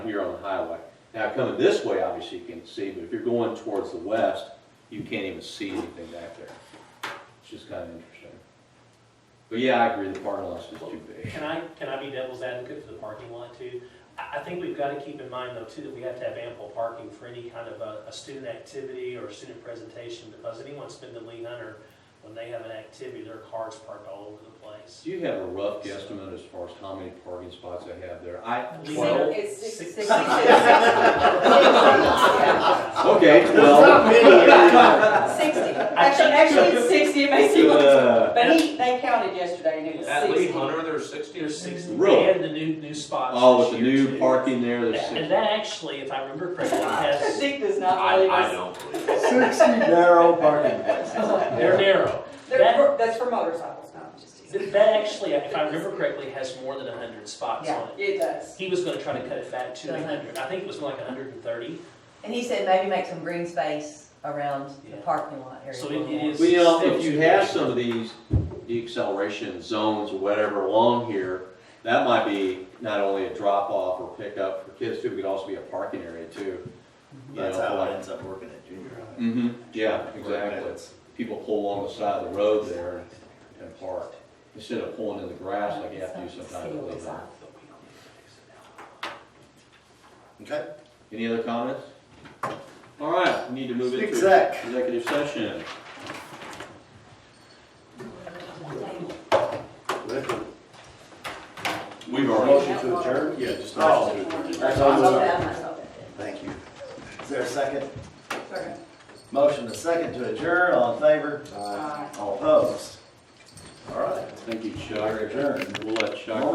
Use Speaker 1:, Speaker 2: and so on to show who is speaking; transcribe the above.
Speaker 1: here on the highway. Now, coming this way, obviously you can see, but if you're going towards the west, you can't even see anything back there. It's just kind of interesting. But yeah, I agree, the parking lot's just too big.
Speaker 2: Can I, can I be devil's advocate for the parking lot too? I, I think we've got to keep in mind though too, that we have to have ample parking for any kind of a, a student activity or a student presentation, because anyone's been to Lee Hunter, when they have an activity, their car's parked all over the place.
Speaker 1: Do you have a rough guesstimate as far as how many parking spots I have there? I,
Speaker 2: Lee Hunter-
Speaker 1: twelve?
Speaker 3: It's
Speaker 2: Six-
Speaker 3: six-
Speaker 2: six-
Speaker 3: six- six-
Speaker 1: Okay, twelve.
Speaker 3: Sixty, actually, actually it's sixty, it may seem like,
Speaker 1: Uh,
Speaker 3: but he, they counted yesterday and it was
Speaker 4: At Lee
Speaker 3: sixty.
Speaker 4: Hunter, there's sixty or
Speaker 2: There's
Speaker 4: sixty.
Speaker 2: sixty,
Speaker 1: Really?
Speaker 2: and the new, new spots.
Speaker 1: Oh, with
Speaker 2: this
Speaker 1: the
Speaker 2: year,
Speaker 1: new
Speaker 2: too.
Speaker 1: parking there, there's
Speaker 2: That-
Speaker 1: six.
Speaker 2: And that actually, if I remember correctly, has,
Speaker 3: Zeke does not
Speaker 4: I,
Speaker 3: believe
Speaker 4: I
Speaker 3: us.
Speaker 4: don't believe it.
Speaker 5: Sixty narrow parking
Speaker 2: they're
Speaker 5: places.
Speaker 2: narrow.
Speaker 3: They're for- That's for motorcycles, not just.
Speaker 2: That that actually, if I remember correctly, has more than hundred spots on
Speaker 3: Yeah,
Speaker 2: it.
Speaker 3: it does.
Speaker 2: He was gonna try to cut it back to hundred, I think it was more like hundred and thirty.
Speaker 6: And he said maybe make some green space around the
Speaker 2: Yeah.
Speaker 6: parking lot area.
Speaker 2: So
Speaker 6: a little
Speaker 2: it- it
Speaker 6: more.
Speaker 2: is-
Speaker 1: Well, you know, if you have some of these deceleration zones or whatever along here, that might be not only a drop off or pickup for kids too, it could also be a parking area too. You
Speaker 7: That's
Speaker 1: know,
Speaker 7: how
Speaker 1: like-
Speaker 7: it ends up working at junior high.
Speaker 1: hmm yeah,
Speaker 7: Where
Speaker 1: exactly.
Speaker 7: it's-
Speaker 1: People pull along the side of the road there and park, instead of pulling in the grass like you have to do sometimes.
Speaker 6: Seal this off.
Speaker 7: Okay,
Speaker 1: Any other comments? All right, we need to move into
Speaker 7: Exec.
Speaker 1: executive session. We've already,
Speaker 7: motion to adjourn? Yeah, just.
Speaker 6: Oh.
Speaker 7: motion to adjourn.
Speaker 6: That's
Speaker 7: all.
Speaker 6: That might help it.
Speaker 7: Thank you. Is there a second?
Speaker 6: Sorry.
Speaker 7: Motion to second to adjourn, all in favor?
Speaker 6: Aye.
Speaker 7: All opposed? All right,
Speaker 1: thank you, Chuck.
Speaker 7: we're adjourned.
Speaker 1: We'll let Chuck.